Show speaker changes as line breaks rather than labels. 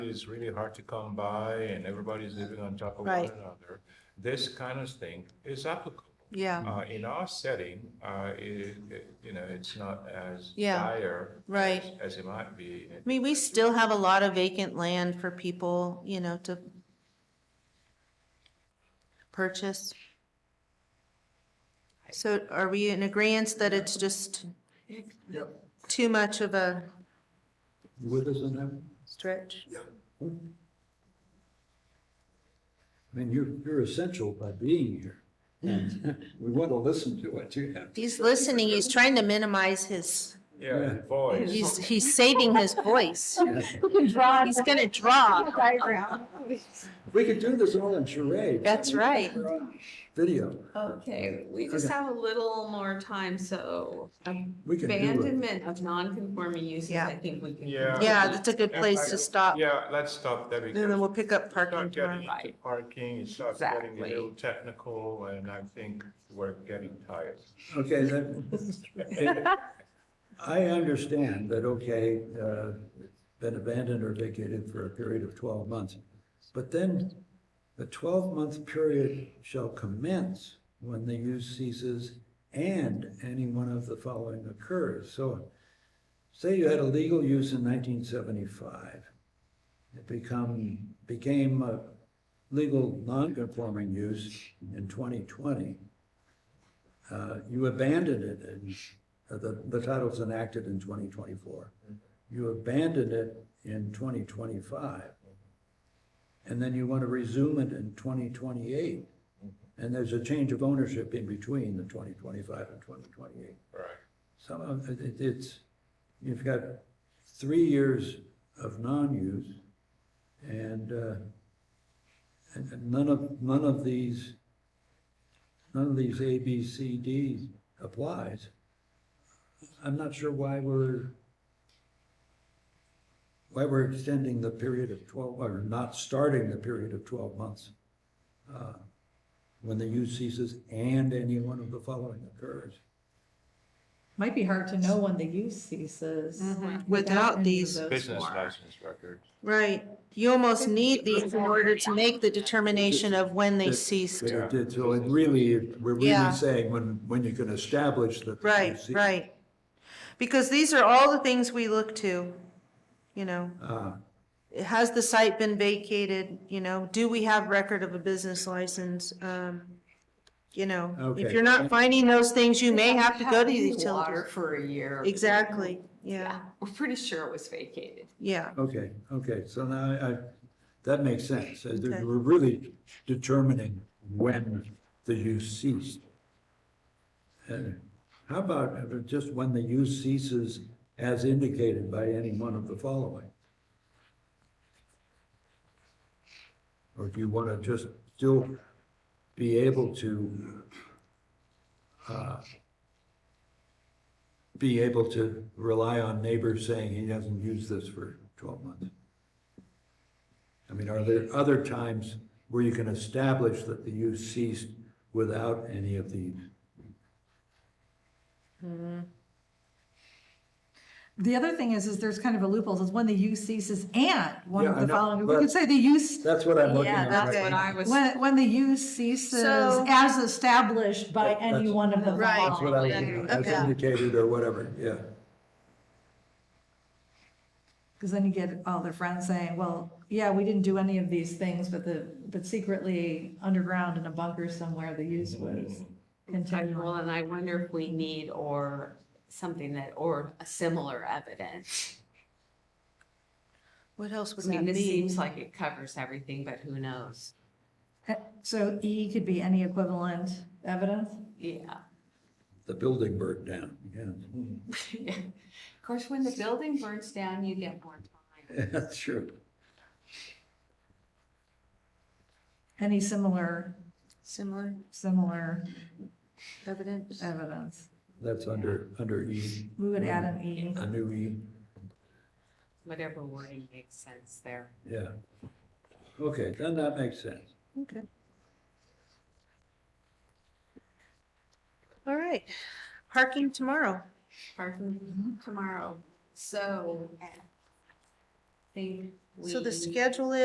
is really hard to come by and everybody's living on top of one
Right.
another. This kind of thing is applicable.
Yeah,
Uh, in our setting, uh, it, it- you know, it's not as
Yeah.
dire
right.
as- as it might be.
I mean, we still have a lot of vacant land for people, you know, to purchase. So are we in agreement that it's just
Yep.
too much of a
With us in that?
stretch?
Yeah. I mean, you're, you're essential by being here. And We want to listen to what you have.
He's listening, he's trying to minimize his,
Yeah,
Yeah.
voice.
he's, he's saving his voice.
If
He's gonna draw.
we could do this all in charade.
That's right.
We're on Video.
Okay, we just
Okay.
have a little more time, so
We can do it.
abandonment of non-conforming uses,
Yeah.
I think we can.
Yeah.
Yeah, that's a good place to stop.
Yeah, let's stop there because.
And then we'll pick up
Start
parking
getting
tomorrow.
into
Right.
Parking, it starts getting a
Exactly.
little technical, and I think we're getting tired.
Okay, that, I understand that, okay, uh, been abandoned or vacated for a period of twelve months. But then the twelve-month period shall commence when the use ceases and any one of the following occurs. So say you had a legal use in nineteen seventy-five. It become, became a legal non-conforming use in twenty twenty uh, you abandoned it, in uh, the, the title was enacted in 2024. You abandoned it in 2025. And then you want to resume it in 2028. And there's a change of ownership in between the 2025 and 2028.
Right.
Some of, it, it- it's, you've got three years of non-use, and, uh, and and none of, none of these, none of these A, B, C, D applies. I'm not sure why we're, why we're extending the period of twelve, or not starting the period of twelve months, uh, when the use ceases and any one of the following occurs.
Might be hard to know when the use ceases.
Mhm.
any
Without
of
these.
those
Business
four.
license record.
Right, you almost need these in order to make the determination of when they ceased.
They did, so it really, we're
Yeah.
really saying when, when you can establish that.
Right, right. Because these are all the things we look to, you know.
Uh,
Has the site been vacated, you know? Do we have record of a business license? Um, You know, if
Okay.
you're not finding those things, you may have to go to the
Haven't had Water
utilities.
for a year.
Exactly,
Yeah,
yeah,
we're pretty sure it was vacated.
yeah,
okay, okay, so now I, that makes sense. Uh,
Okay.
We're really determining when the use ceased. And how about uh, just when the use ceases as indicated by any one of the following? Or do you want to just still be able to uh, be able to rely on neighbors saying he hasn't used this for twelve months? I mean, are there other times where you can establish that the use ceased without any of these?
The other thing is, is there's kind of a loophole, is when the use ceases and one
Yeah,
of
I
the
know,
following, we
but-
could say the use,
That's what I'm looking
Yeah,
at
that's
right
what
now.
I was.
when, when the use ceases
So-
as established by
That-
any
that's-
one of the
Right.
following.
That's what I was looking at, as
Okay.
indicated or whatever, yeah.
Because then you get all their friends saying, well, yeah, we didn't do any of these things, but the, but secretly underground in a bunker somewhere, the use was
Well,
Mm-hmm.
continual.
and I wonder if we need or something that, or a similar evidence.
what else would
I mean,
that
this
be?
seems like it covers everything, but who knows?
Eh, So E could be any equivalent evidence?
Yeah.
The building burned down, yeah.
Of course, when the building burns down, you get more time.
That's true.
Any similar,
Similar
similar
evidence?
evidence?
That's under, under E,
We would add an E.
a new E,
Whatever wording makes sense there.
yeah. Okay, then that makes sense.
Okay. All right, parking tomorrow.
Pardon tomorrow. So think we.
So the schedule is.